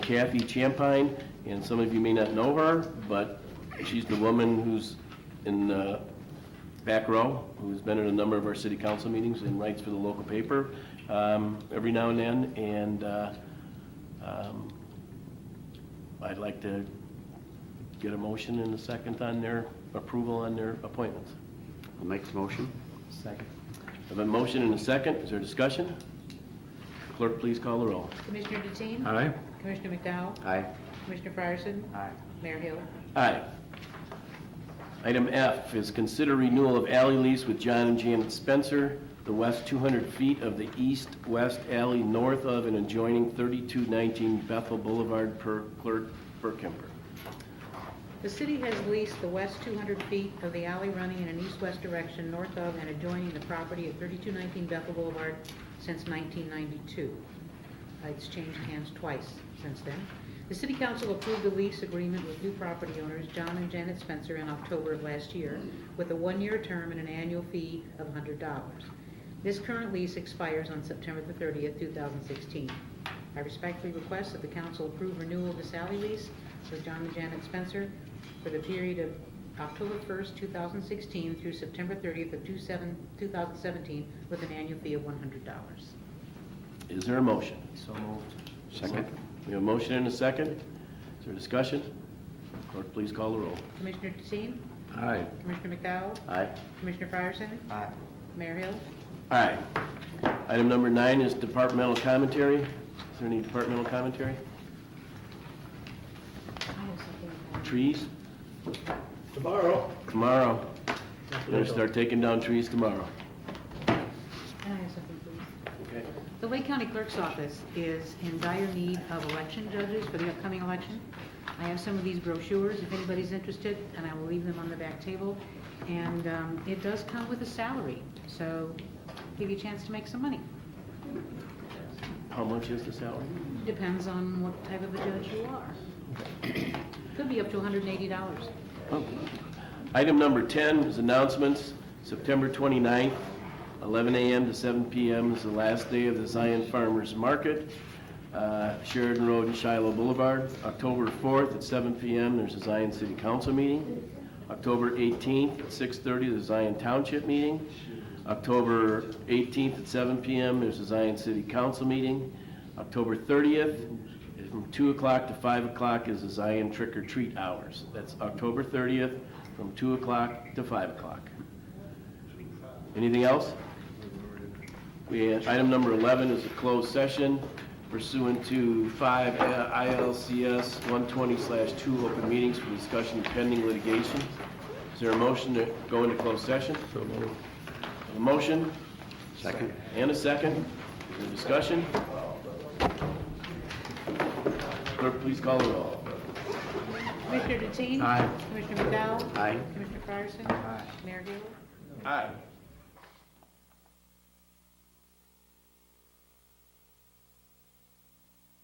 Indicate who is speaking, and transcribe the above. Speaker 1: Kathy Champine, and some of you may not know her, but she's the woman who's in the back row, who's been at a number of our city council meetings and writes for the local paper um, every now and then, and uh, um, I'd like to get a motion and a second on their approval on their appointments.
Speaker 2: I'll make the motion.
Speaker 1: Second. I have a motion and a second. Is there discussion? Clerk, please call the roll.
Speaker 3: Commissioner Deteen?
Speaker 2: Aye.
Speaker 3: Commissioner McDowell?
Speaker 2: Aye.
Speaker 3: Commissioner Fryerson?
Speaker 2: Aye.
Speaker 3: Mayor Hill?
Speaker 1: Aye. Item F is consider renewal of alley lease with John and Janet Spencer, the west 200 feet of the east-west alley north of and adjoining 3219 Bethel Boulevard per Clerk Burkemper.
Speaker 3: The city has leased the west 200 feet of the alley running in an east-west direction north of and adjoining the property at 3219 Bethel Boulevard since 1992. Uh, It's changed hands twice since then. The city council approved a lease agreement with new property owners, John and Janet Spencer, in October of last year, with a one-year term and an annual fee of $100. This current lease expires on September the 30th, 2016. I respectfully request that the council approve renewal of this alley lease with John and Janet Spencer for the period of October 1st, 2016 through September 30th of 2017 with an annual fee of $100.
Speaker 1: Is there a motion? So moved.
Speaker 2: Second.
Speaker 1: We have a motion and a second. Is there discussion? Clerk, please call the roll.
Speaker 3: Commissioner Deteen?
Speaker 2: Aye.
Speaker 3: Commissioner McDowell?
Speaker 2: Aye.
Speaker 3: Commissioner Fryerson?
Speaker 2: Aye.
Speaker 3: Mayor Hill?
Speaker 1: Aye. Item number nine is departmental commentary. Is there any departmental commentary? Trees?
Speaker 4: Tomorrow.
Speaker 1: Tomorrow. We're gonna start taking down trees tomorrow. Okay.
Speaker 3: The Lake County Clerk's Office is in dire need of election judges for the upcoming election. I have some of these brochures, if anybody's interested, and I will leave them on the back table. And um, it does come with a salary, so give you a chance to make some money.
Speaker 1: How much is the salary?
Speaker 3: Depends on what type of a judge you are. Could be up to $180.
Speaker 1: Item number 10 is announcements. September 29th, 11 a.m. to 7 p.m. is the last day of the Zion Farmers Market, uh, Sheridan Road and Shiloh Boulevard. October 4th at 7 p.m., there's a Zion City Council meeting. October 18th at 6:30, the Zion Township meeting. October 18th at 7 p.m., there's a Zion City Council meeting. October 30th, from 2 o'clock to 5 o'clock is the Zion Trick or Treat hours. That's October 30th, from 2 o'clock to 5 o'clock. Anything else? We had, item number 11 is a closed session pursuant to uh, 5 ILCS 120/2 open meetings for discussion of pending litigation. Is there a motion to go into closed session? So A motion
Speaker 2: Second.
Speaker 1: and a second. Is there discussion? Clerk, please call the roll.
Speaker 3: Commissioner Deteen?
Speaker 2: Aye.
Speaker 3: Commissioner McDowell?
Speaker 2: Aye.
Speaker 3: Commissioner Fryerson? Aye. Mayor Hill?
Speaker 1: Aye.